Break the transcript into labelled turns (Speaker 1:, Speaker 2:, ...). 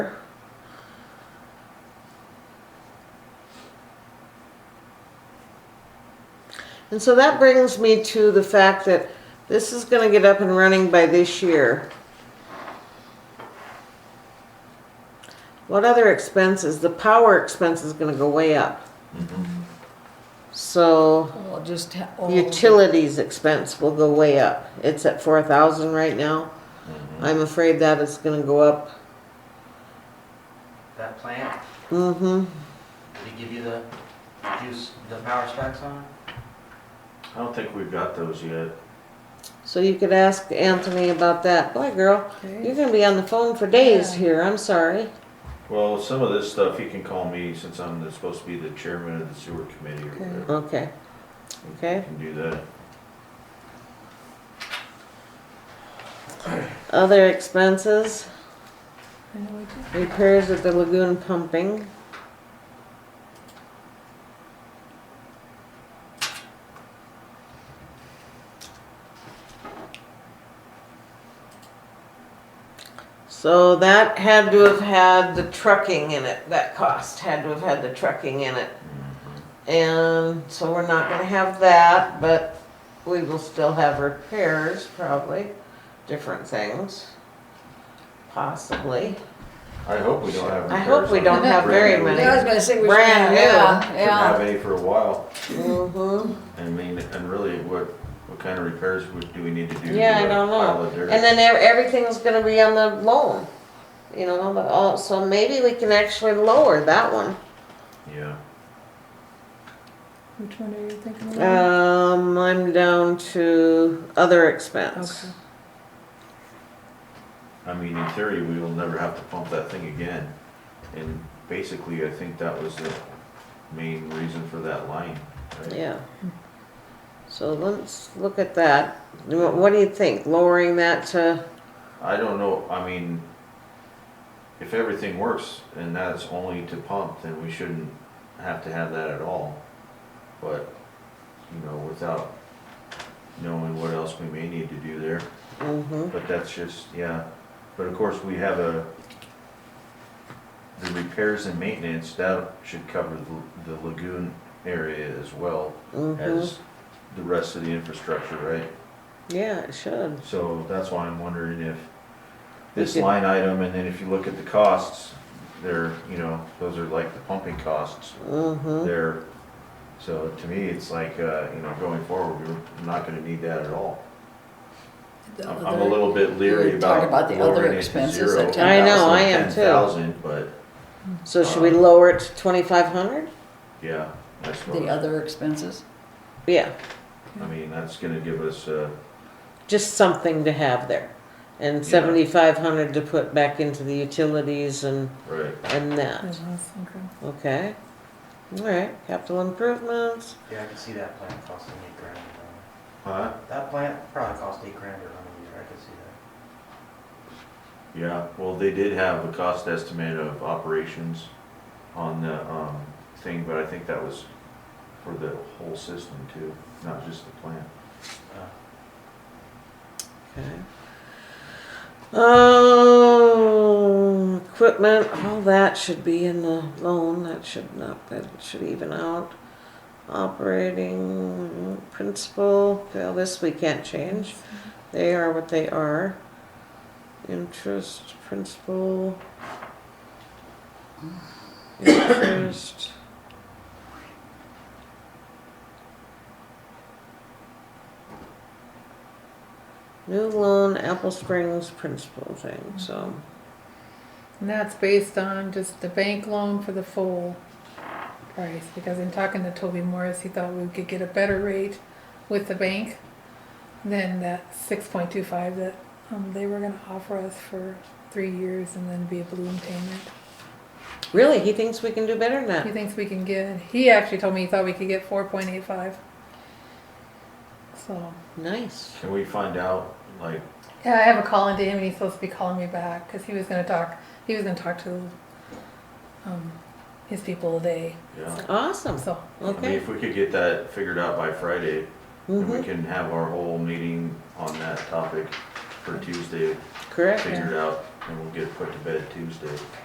Speaker 1: And so that brings me to the fact that this is gonna get up and running by this year. What other expenses? The power expense is gonna go way up. So
Speaker 2: Well, just. ha- oh,
Speaker 3: Oh.
Speaker 2: all of it.
Speaker 1: utilities expense will go way up. It's at four thousand right now. I'm afraid that is gonna go up.
Speaker 4: That plant,
Speaker 1: Mm-hmm.
Speaker 4: did he give you the juice, the power specs on it?
Speaker 5: I don't think we've got those yet.
Speaker 1: So you could ask Anthony about that. Boy, girl, you're
Speaker 2: Okay.
Speaker 1: gonna be on the phone for days
Speaker 2: Yeah.
Speaker 1: here. I'm sorry.
Speaker 5: Well, some of this stuff, you can call me since I'm the- supposed to be the chairman of the sewer committee or
Speaker 2: Okay.
Speaker 5: whatever.
Speaker 1: Okay. Okay.
Speaker 5: You can do that.
Speaker 1: Other expenses,
Speaker 2: I know we did.
Speaker 1: repairs at the lagoon pumping. So that had to have had the trucking in it, that cost had to have had the trucking in it. And so we're not gonna have that, but we will still have repairs probably, different things. Possibly.
Speaker 5: I hope we don't have.
Speaker 1: I hope we
Speaker 5: repairs on
Speaker 1: don't
Speaker 5: the
Speaker 1: have very
Speaker 5: brand new.
Speaker 1: many.
Speaker 2: Yeah, I was gonna say we should.
Speaker 1: Brand
Speaker 2: Yeah,
Speaker 5: Didn't have
Speaker 2: yeah.
Speaker 5: any for a while.
Speaker 1: Mm-hmm.
Speaker 5: I mean, and really, what, what kind of repairs would, do we need to do? to
Speaker 1: Yeah, I
Speaker 5: a
Speaker 1: don't know.
Speaker 5: pile of dirt?
Speaker 1: And then ev- everything's gonna be on the loan. You know, but all, so maybe we can actually lower that one.
Speaker 5: Yeah,
Speaker 2: Which one are you thinking about?
Speaker 1: Um, I'm down to other expense.
Speaker 2: Okay.
Speaker 5: I mean, in theory, we will never have to pump that thing again. And basically, I think that was the main reason for that line. right?
Speaker 1: Yeah. So let's look at that. Wha- What do you think? Lowering that to,
Speaker 5: I don't know, I mean, if everything works and that's only to pump, then we shouldn't have to have that at all. But, you know, without knowing what else we may need to do there,
Speaker 1: mm-hmm.
Speaker 5: but that's just, yeah. But of course, we have a, the repairs and maintenance, that should cover the- the lagoon area as well
Speaker 1: hmm
Speaker 5: as the rest of the infrastructure, right?
Speaker 1: Yeah, it should.
Speaker 5: So that's why I'm wondering if this
Speaker 1: Okay.
Speaker 5: line item, and then if you look at the costs, they're, you know, those are like the pumping costs.
Speaker 1: Mm-hmm.
Speaker 5: They're, so to me, it's like, uh, you know, going forward, we're not gonna need that at all.
Speaker 2: The
Speaker 5: I'm I'm
Speaker 2: other-
Speaker 5: a little bit leery
Speaker 2: we talked about
Speaker 5: about
Speaker 2: the other
Speaker 5: lowering it to
Speaker 2: expenses
Speaker 5: zero.
Speaker 2: at
Speaker 1: I know, I am too.
Speaker 5: 10,000, but,
Speaker 1: So should we lower it to twenty-five hundred?
Speaker 5: yeah, that's,
Speaker 2: The
Speaker 5: what-
Speaker 2: other expenses?
Speaker 1: Yeah,
Speaker 5: I mean, that's gonna give us, uh,
Speaker 1: just something to have there. And
Speaker 5: Yeah.
Speaker 1: seventy-five hundred to put back into the utilities and,
Speaker 5: right,
Speaker 1: and that, okay? All right, capital improvements,
Speaker 4: Yeah, I can see that plant costing eight grand. uh,
Speaker 5: huh?
Speaker 4: That plant probably cost eight grand or something, I could see that.
Speaker 5: Yeah, well, they did have a cost estimate of operations on the, um, thing, but I think that was for the whole system too, not just the plant.
Speaker 4: Uh,
Speaker 1: okay? Um, equipment, all that should be in the loan, that should not, that should even out. Operating principal, well, this we can't change. They are what they are. Interest, principal. Interest. New loan, Apple Springs principal thing, so.
Speaker 3: And that's based on just the bank loan for the full price, because in talking to Toby Morris, he thought we could get a better rate with the bank than that six point two five that, um, they were gonna offer us for three years and then be a balloon payment.
Speaker 1: Really, he thinks we can do better than
Speaker 3: He
Speaker 1: that.
Speaker 3: thinks we can get, he actually told me he thought we could get four point eight five. So,
Speaker 1: Nice.
Speaker 5: Can we find out, like,
Speaker 3: yeah, I have a call into him and he's supposed to be calling me back, cause he was gonna talk, he was gonna talk to, um, his people today,
Speaker 5: yeah,
Speaker 1: Awesome.
Speaker 3: so.
Speaker 5: I mean,
Speaker 1: Okay.
Speaker 5: if we could get that figured out by Friday, then we
Speaker 1: Mhm.
Speaker 5: can have our whole meeting on that topic for Tuesday
Speaker 1: Mm-hmm. Correct.
Speaker 5: figured out, and we'll get it put to bed Tuesday.